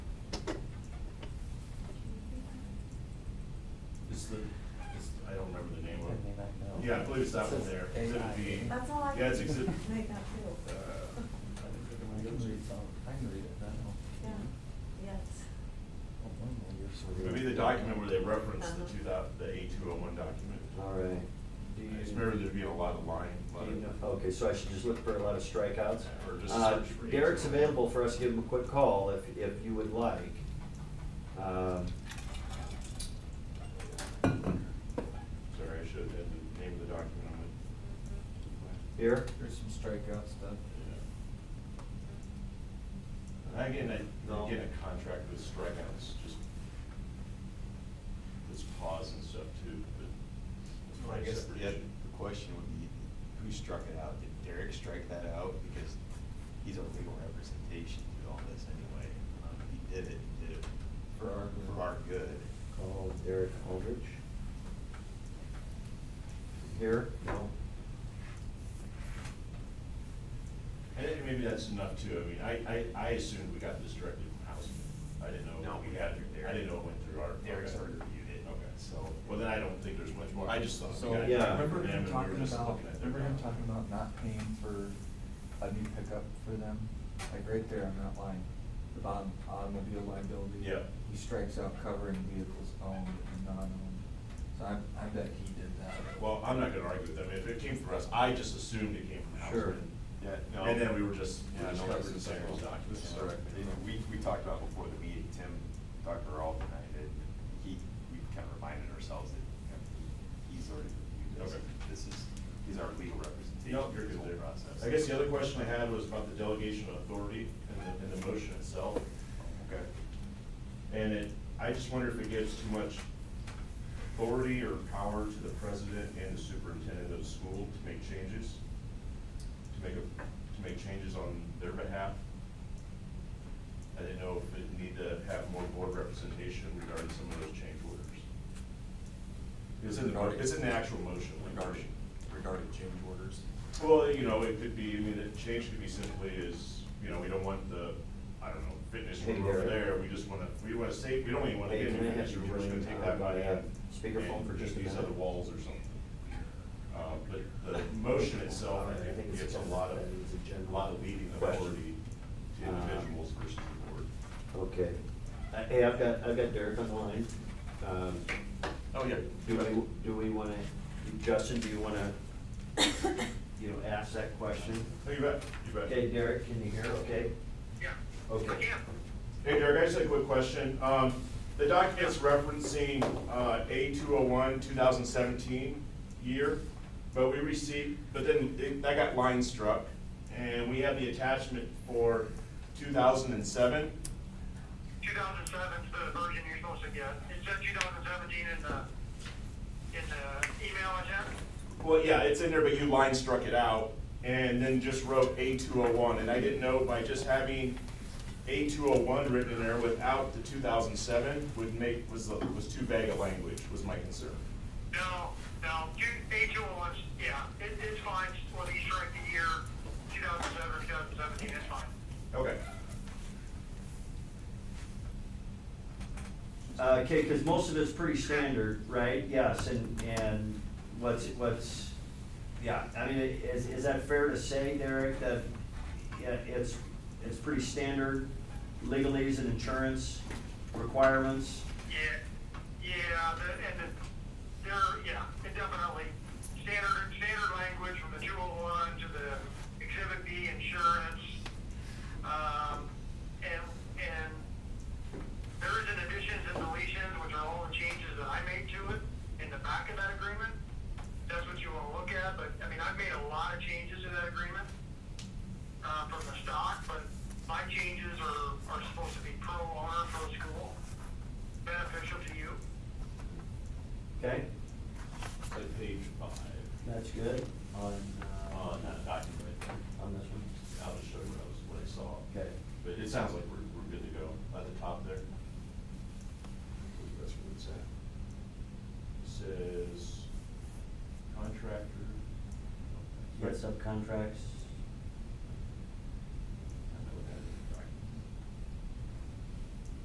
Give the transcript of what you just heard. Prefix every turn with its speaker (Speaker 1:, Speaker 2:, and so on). Speaker 1: It's the, it's, I don't remember the name of
Speaker 2: Turn me
Speaker 1: it.
Speaker 2: back now.
Speaker 1: Yeah, I believe it's that one there,
Speaker 2: Says
Speaker 1: exhibit B.
Speaker 2: AI.
Speaker 3: That's all I can
Speaker 1: Yeah, it's
Speaker 3: make
Speaker 1: exhibit,
Speaker 3: out
Speaker 1: uh,
Speaker 3: too.
Speaker 1: I
Speaker 2: I
Speaker 1: think
Speaker 2: can
Speaker 1: it's-
Speaker 2: read some, I can read it now.
Speaker 3: Yeah, yes.
Speaker 2: Oh, normally you're so good.
Speaker 1: Maybe the document where they reference the
Speaker 3: Uh-huh.
Speaker 1: two thou, the A two oh one document.
Speaker 4: All right,
Speaker 2: Uh, Do
Speaker 1: I just
Speaker 2: you-
Speaker 1: remember there'd be a lot of line, a lot of.
Speaker 4: okay, so I should just look for a lot of strikeouts?
Speaker 1: Or just
Speaker 4: Uh,
Speaker 1: search for
Speaker 4: Derek's
Speaker 1: each.
Speaker 4: available for us to give him a quick call if, if you would like. Um,
Speaker 1: Sorry, I should have had the name of the document on it.
Speaker 4: Here,
Speaker 2: There's some strikeout stuff.
Speaker 1: Yeah. And Again, I, again, a contract with strikeouts, just this pause and stuff too, but. it's
Speaker 5: Well, I
Speaker 1: probably a
Speaker 5: guess
Speaker 1: separate
Speaker 5: the,
Speaker 1: issue.
Speaker 5: the question would be, who struck it out? Did Derek strike that out? Because he's our legal representation through all this anyway. Um, if he did it, he did it
Speaker 2: For our good.
Speaker 5: For our good.
Speaker 4: call Derek Aldrich. Here, no,
Speaker 1: And it- maybe that's enough too, I mean, I, I, I assumed we got this directly from Housing, I didn't know.
Speaker 5: No, we got it through Derek.
Speaker 1: I didn't know it went through our.
Speaker 5: Derek's
Speaker 1: okay.
Speaker 5: already reviewed it.
Speaker 1: Okay.
Speaker 5: So.
Speaker 1: Well, then I don't think there's much more, I just thought. we
Speaker 2: So,
Speaker 1: got it
Speaker 4: yeah.
Speaker 1: directly
Speaker 2: remember
Speaker 1: from them
Speaker 2: him
Speaker 1: and we were
Speaker 2: talking
Speaker 1: just
Speaker 2: about,
Speaker 1: looking at their
Speaker 2: remember him
Speaker 1: contract.
Speaker 2: talking about not paying for a new pickup for them? Like right there on that line, the bottom automobile liability.
Speaker 1: Yeah.
Speaker 2: He strikes out covering vehicles owned and non-owned. So I, I bet he did that.
Speaker 1: Well, I'm not gonna argue with them, if it came from us, I just assumed it came from
Speaker 4: Sure.
Speaker 1: Housing.
Speaker 5: Yeah, no.
Speaker 1: And then we were just, we
Speaker 5: Yeah,
Speaker 1: just
Speaker 5: no,
Speaker 1: covered
Speaker 5: this
Speaker 1: in
Speaker 5: is
Speaker 1: some of those
Speaker 5: Derek.
Speaker 1: documents.
Speaker 5: This is Derek. You know, We, we talked about before the meeting, Tim, Dr. Alden, and I, that he, we kind of reminded ourselves that you know, he's already reviewed
Speaker 1: Okay.
Speaker 5: this. This is, he's our legal representation.
Speaker 1: No, you're
Speaker 5: through
Speaker 1: good
Speaker 5: the
Speaker 1: there.
Speaker 5: whole process.
Speaker 1: I guess the other question I had was about the delegation of authority and the, and the motion itself.
Speaker 5: Okay.
Speaker 1: And it, I just wonder if it gives too much authority or power to the president and the superintendent of the school to make changes? To make, a- to make changes on their behalf? I didn't know if it need to have more board representation regarding some of those change orders. It's in the, it's in the actual motion.
Speaker 5: Regarding, regarding change orders.
Speaker 1: Well, you know, it could be, I mean, the change could be simply is, you know, we don't want the, I don't know, fitness room
Speaker 4: Hey,
Speaker 1: over
Speaker 4: Gary.
Speaker 1: there, we just wanna, we wanna save, we don't even wanna
Speaker 4: Hey,
Speaker 1: get
Speaker 4: can I
Speaker 1: any
Speaker 4: have
Speaker 1: fitness
Speaker 4: you
Speaker 1: room, we're just
Speaker 4: join,
Speaker 1: gonna take
Speaker 4: uh,
Speaker 1: that
Speaker 4: my,
Speaker 1: money
Speaker 4: uh,
Speaker 1: and.
Speaker 4: speakerphone
Speaker 1: and
Speaker 4: for just a
Speaker 1: These other
Speaker 4: minute?
Speaker 1: walls or something. Uh, but the motion itself, I
Speaker 4: I think
Speaker 1: think,
Speaker 4: it's
Speaker 1: gives a
Speaker 4: agenda-
Speaker 1: lot of,
Speaker 4: that is agenda
Speaker 1: a lot of leading
Speaker 4: question.
Speaker 1: authority to
Speaker 4: Uh,
Speaker 1: individuals versus the board.
Speaker 4: okay. Uh, Hey, I've got, I've got Derek on the line. Um,
Speaker 1: Oh, yeah.
Speaker 4: Do we, do we wanna, Justin, do you wanna, you know, ask that question?
Speaker 1: Oh, you bet, you bet.
Speaker 4: Okay, Derek, can you hear, okay?
Speaker 6: Yeah.
Speaker 4: Okay.
Speaker 6: Yeah.
Speaker 1: Hey Derek, I just had a quick question. Um, the document's referencing, uh, A two oh one, two thousand seventeen year, but we received, but then it- that got line struck. And we have the attachment for two thousand and seven.
Speaker 6: 2007 is the version you're supposed to get. It said 2017 in the, in the email I sent.
Speaker 1: Well, yeah, it's in there, but you line struck it out and then just wrote A two oh one. And I didn't know by just having A two oh one written in there without the two thousand seven would make, was, was too vague a language, was my concern.
Speaker 6: No, no, two- A2 was, yeah, it, it's fine, whether you strike the year 2007 or 2017, it's fine.
Speaker 1: Okay.
Speaker 4: Uh, okay, cause most of it's pretty standard, right? Yes, and, and what's, what's, yeah, I mean, is, is that fair to say, Derek, that yeah, it's, it's pretty standard legalese and insurance requirements?
Speaker 6: Yeah, yeah, the, and the, there, yeah, it definitely, standard, standard language from the two oh one to the exhibit B insurance. Um, and, and there is an additions and deletions, which are all the changes that I made to it in the back of that agreement. That's what you wanna look at, but, I mean, I've made a lot of changes to that agreement, uh, from the stock, but my changes are, are supposed to be pro honor, pro school beneficial to you.
Speaker 4: Okay,
Speaker 1: At page five,
Speaker 4: that's good on, uh,
Speaker 1: on that document,
Speaker 4: on this one.
Speaker 1: I'll just show you what I was, what I saw.
Speaker 4: Okay.
Speaker 1: But it sounds like we're, we're good to go at the top there. That's what it's at. It Says contractor.
Speaker 4: You got subcontracts?